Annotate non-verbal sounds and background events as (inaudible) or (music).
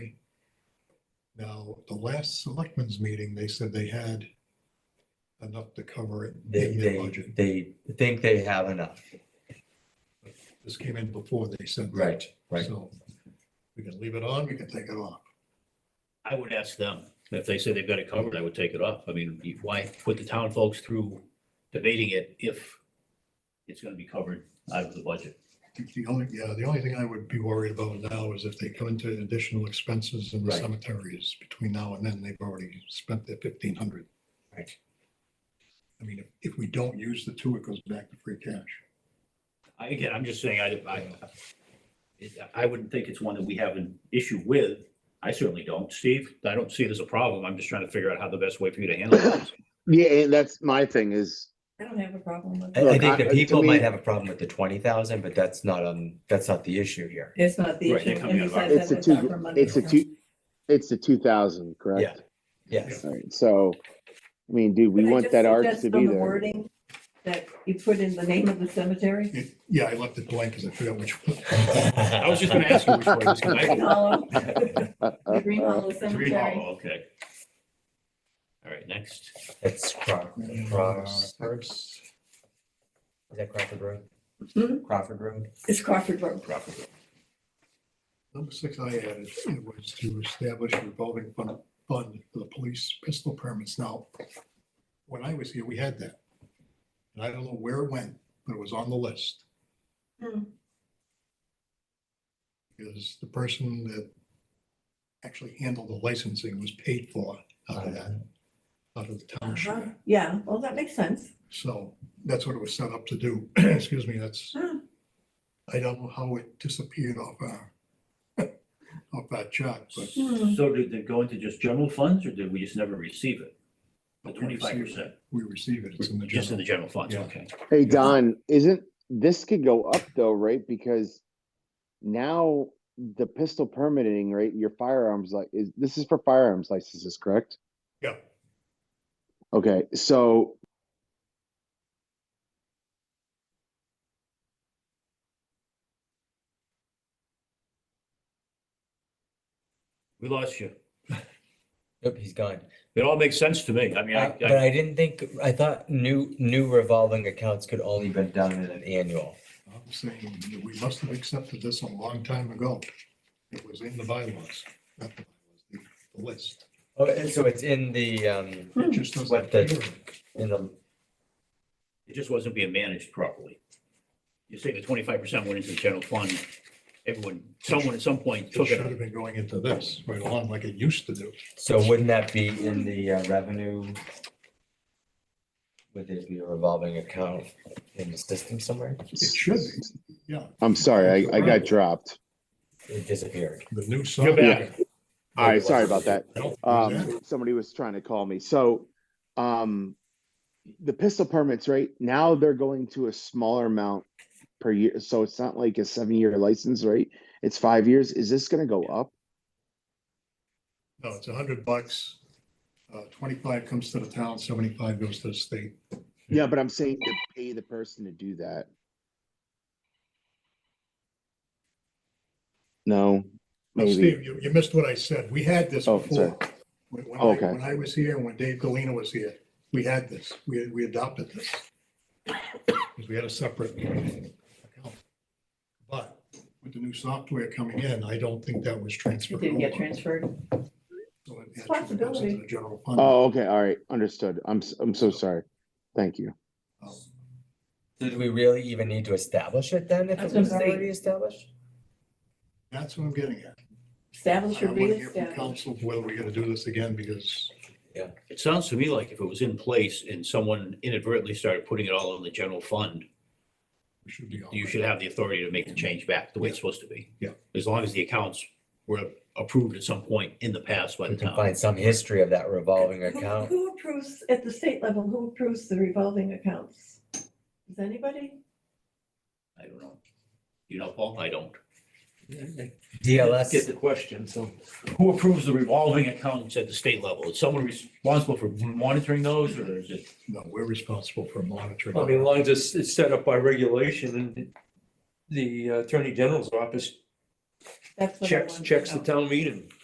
Now, the last selectmen's meeting, they said they had enough to cover it They, in their they, budget. they think they have enough. This came in before they said. that. So we can leave it on, we can take it off. I would ask them, if they say they've got it covered, I would take it off. I mean, why put the town folks through debating it if it's gonna be covered out of the budget? I think The only, yeah, the only thing I would be worried about now is if they come into additional expenses in the Right. cemeteries between now and then, they've already spent their fifteen hundred. Right. I mean, if- if we don't use the two, it goes back to free cash. I, again, I'm just saying, I, I, it- I wouldn't think it's one that we have an issue with. I certainly don't. Steve, I don't see it as a problem. I'm just trying to figure out how the best way for you to handle it. Yeah, and that's my thing is, I don't have a problem with I, it. I Look, think I- the to people me- might have a problem with the twenty thousand, but that's not, um, that's not the issue here. It's not the Right, issue. they're coming And out of our- besides that, It's a we're two- proper money it's a account. two, it's the two thousand, correct? Yes, All right, so, I mean, dude, we Could I want just that arch suggest to on be the there. wording That you put in the name of the cemetery? (laughs) It- Yeah, I left it blank because I forgot which. one. I was just gonna ask you which way. it was gonna Green go. Hollow, the Uh, Green Hollow Three (laughs) Cemetery. hollow, okay. All right, next. (laughs) It's Cro- And, uh, (laughs) Cross, perhaps- is that Crawford Road? Hmm? Mhm. Crawford Road? It's Crawford Road. Number six I added it was to establish a revolving fund, fund for the police pistol permits. Now, when I was here, we had that. And I don't know where it went, but it was on the list. Hmm. Because the person that actually handled the licensing was paid for out of that, out of the Uh-huh. township. Yeah, well, that makes sense. So that's what it was set up to do. (clears throat) Excuse me, that's, Hmm. I don't know how it disappeared off our, (laughs) off our chart, but. Hmm. So did it go into just general funds or did we just never receive it? The but we receive it. twenty-five percent, We receive it, it's in the just in general. the general funds, Yeah. okay. Hey, Don, isn't, this could go up though, right? Because now the pistol permitting, right, your firearms like, is, this is for firearms licenses, correct? Yeah, Okay, so We lost you. Nope, he's gone. It all makes sense to me. I mean, I, Uh, But I, I didn't think, I thought new, new revolving accounts could only be done in an annual. I'm saying that we must have accepted this a long time ago. It was in the bylaws, not the bylaws, the the list. Oh, and so it's in the, um, It just doesn't What the- appear. in the, it just wasn't being managed properly. You say the twenty-five percent went into the general fund. Everyone, someone at some point It took should it. have been going into this right along like it used to do. so wouldn't that be in the uh, revenue? Would there be a revolving account in the system somewhere? It should be, yeah, I'm sorry, I, I got dropped. It disappeared. the new. You're back. All right, sorry about that. No, exactly. Um, somebody was trying to call me. So, um, the pistol permits, right now they're going to a smaller amount per year. So it's not like a seven-year license, right? It's five years. Is this gonna go up? No, it's a hundred bucks. Uh, twenty-five comes to the town, seventy-five goes to the state. Yeah, but I'm saying to pay the person to do that. No, Now, maybe. Steve, you, you missed what I said. We had this Oh, sorry. before. When when I, Okay. when I was here, and when Dave Galena was here, we had this. We, we adopted this. 'Cause We had a separate account. But with the new software coming in, I don't think that was It transferred. didn't get over. transferred. So it actually goes into the general fund. Oh, okay, all right, understood. I'm, s- I'm so sorry. Thank you. Um, Did we really even need to establish it then if That's it what I'm was saying. already established? That's what I'm getting at. Establish I or want to hear from reestablish. council whether we're gonna do this again because It sounds to me like if it was in place and someone inadvertently started putting it all in the general fund, we should be. all you right. should have the authority to make the change back the way it's supposed to be. Yeah. As long as the accounts were approved at some point in the past by We the can town. find some history of that revolving Who- (laughs) account. Who approves, at the state level, who approves the revolving accounts? Is anybody? I don't know. You know, Paul, I don't. Get DLS, the question, so who approves the revolving accounts at the state level? Is someone responsible for monitoring those or is it? No, we're responsible for monitoring. I mean, as long as it's, it's set up by regulation and the uh, Attorney General's office That's what I checks, wanted to checks the know. town meeting.